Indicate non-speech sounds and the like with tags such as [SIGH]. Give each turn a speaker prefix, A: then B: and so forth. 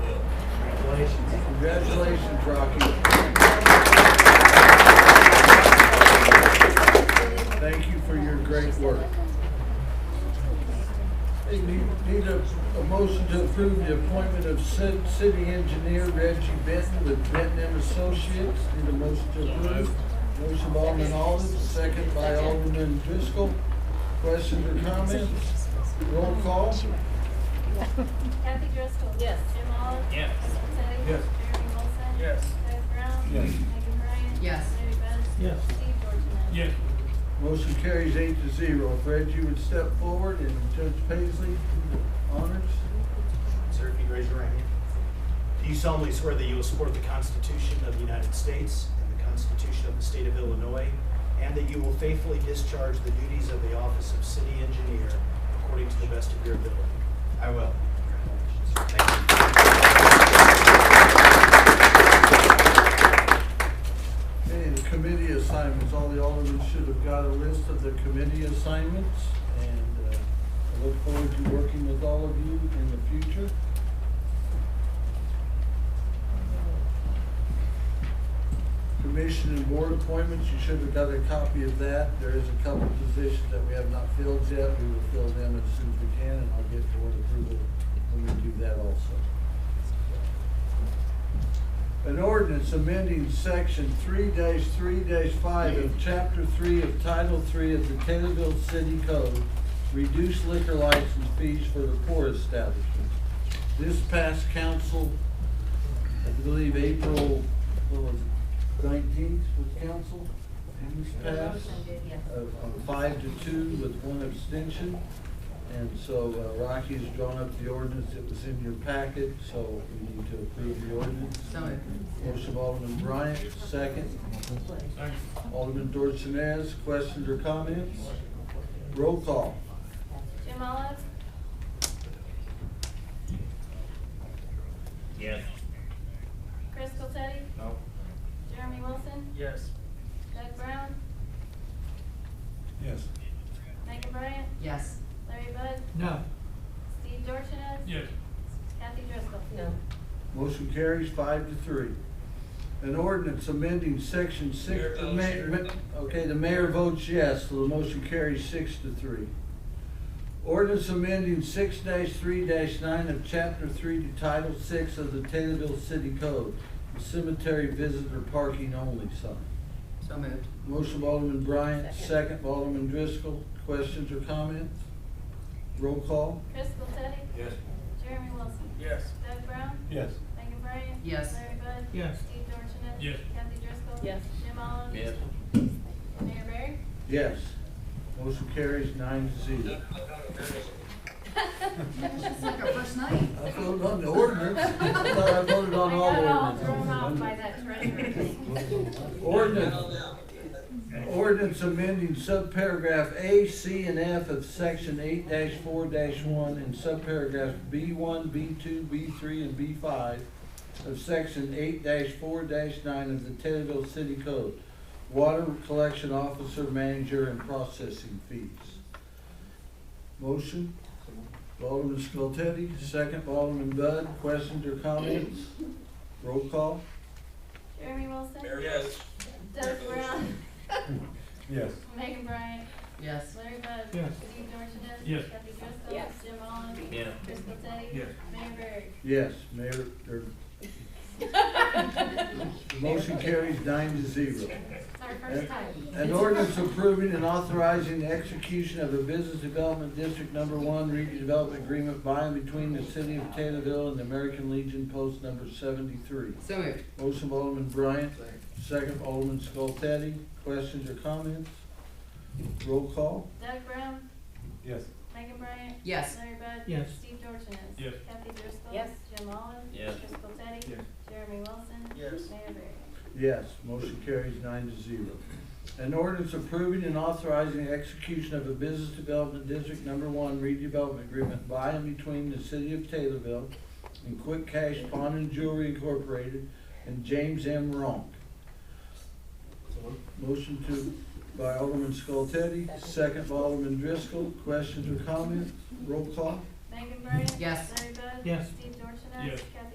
A: Congratulations, Rocky. Thank you for your great work. Hey, Need need a, a motion to approve the appointment of ci- city engineer Reggie Benton with Benton and Associates. Need a motion to approve. Motion by Alderman Alden, second by Alderman Driscoll. Questions or comments? Roll call.
B: Kathy Driscoll.
C: Yes.
B: Jim Olive.
D: Yes.
B: Kristen Teddy.
A: Yes.
B: Jeremy Wilson.
D: Yes.
B: Doug Brown.
A: Yes.
B: Megan Bryan.
C: Yes.
B: Larry Bud.
D: Yes.
B: Steve Dorsones.
D: Yes.
A: Motion carries eight to zero. If Reggie would step forward and Judge Paisley honors.
E: Sir, if you raise your right hand. Do you solemnly swear that you will support the Constitution of the United States and the Constitution of the State of Illinois, and that you will faithfully discharge the duties of the office of city engineer according to the best of your ability? I will. Congratulations. Thank you.
A: Okay, the committee assignments, all the aldermen should have got a list of their committee assignments, and uh, I look forward to working with all of you in the future. Commission and board appointments, you should have got a copy of that. There is a couple positions that we have not filled yet. We will fill them as soon as we can, and I'll get board approval when we do that also. An ordinance amending section three three five of chapter three of title three of the Taylorville City Code, reduce liquor license fees for the poor establishments. This passed council, I believe, April, what was it, nineteenth was council? And this passed uh, on five to two with one abstention. And so uh, Rocky's drawn up the ordinance, it was in your packet, so we need to approve the ordinance.
C: So moved.
A: Motion of Alderman Bryant, second. Alderman Dorsones, questions or comments? Roll call.
B: Jim Olive.
D: Yes.
B: Crystal Teddy.
E: No.
B: Jeremy Wilson.
D: Yes.
B: Doug Brown.
A: Yes.
B: Megan Bryan.
C: Yes.
B: Larry Bud.
D: No.
B: Steve Dorsones.
D: Yes.
B: Kathy Driscoll.
C: No.
A: Motion carries five to three. An ordinance amending section
D: Mayor
A: six.
D: votes
A: ma-
D: yes.
A: ma- Okay, the mayor votes yes, so the motion carries six to three. Ordinance amending six three nine of chapter three to title six of the Taylorville City Code, cemetery visitor parking only sign.
C: So moved.
A: Motion of Alderman Bryant,
C: Second.
A: second by Alderman Driscoll. Questions or comments? Roll call.
B: Crystal Teddy.
D: Yes.
B: Jeremy Wilson.
D: Yes.
B: Doug Brown.
A: Yes.
B: Megan Bryan.
C: Yes.
B: Larry Bud.
D: Yes.
B: Steve Dorsones.
D: Yes.
B: Kathy Driscoll.
C: Yes.
B: Jim Olive.
D: Yes.
B: Mayor Barry.
A: Yes. Motion carries nine to zero.
C: It's like our first night.
A: I voted on the ordinance. I thought I voted
B: [LAUGHS]
A: on all
B: I got all thrown off by
A: ordinances.
B: that treasure thing.
A: Ordinance, ordinance amending subparagraph A, C, and F of section eight four one and subparagraph B one, B two, B three, and B five of section eight four nine of the Taylorville City Code. Water collection officer, manager, and processing fees. Motion? Alderman Skoltedi, second by Alderman Bud, questions or comments? Roll call?
B: Jeremy Wilson.
D: Yes.
B: Doug Brown.
A: Yes.
B: Megan Bryan.
C: Yes.
B: Larry Bud.
D: Yes.
B: Steve Dorsones.
D: Yes.
B: Kathy Driscoll.
C: Yes.
B: Jim Olive.
D: Yeah.
B: Crystal Teddy.
D: Yes.
B: Mayor Barry.
A: Yes, Mayor, er, motion carries nine to zero.
B: It's our first time.
A: An ordinance approving and authorizing the execution of a Business Development District Number One redevelopment agreement by and between the City of Taylorville and the American Legion Post Number Seventy-three.
C: So moved.
A: Motion of Alderman Bryant, second of Alderman Skoltedi, questions or comments? Roll call?
B: Doug Brown.
A: Yes.
B: Megan Bryan.
C: Yes.
B: Larry Bud.
D: Yes.
B: Steve Dorsones.
D: Yes.
B: Kathy Driscoll.
C: Yes.
B: Jim Olive.
D: Yes.
B: Crystal Teddy.
D: Yes.
B: Jeremy Wilson.
D: Yes.
B: Mayor Barry.
A: Yes, motion carries nine to zero. An ordinance approving and authorizing the execution of a Business Development District Number One redevelopment agreement by and between the City of Taylorville and Quick Cash Pawn and Jewelry Incorporated and James M. Ronk. Motion to, by Alderman Skoltedi, second by Alderman Driscoll. Questions or comments? Roll call.
B: Megan Bryan.
C: Yes.
B: Larry Bud.
D: Yes.
B: Steve Dorsones.
D: Yes.
B: Kathy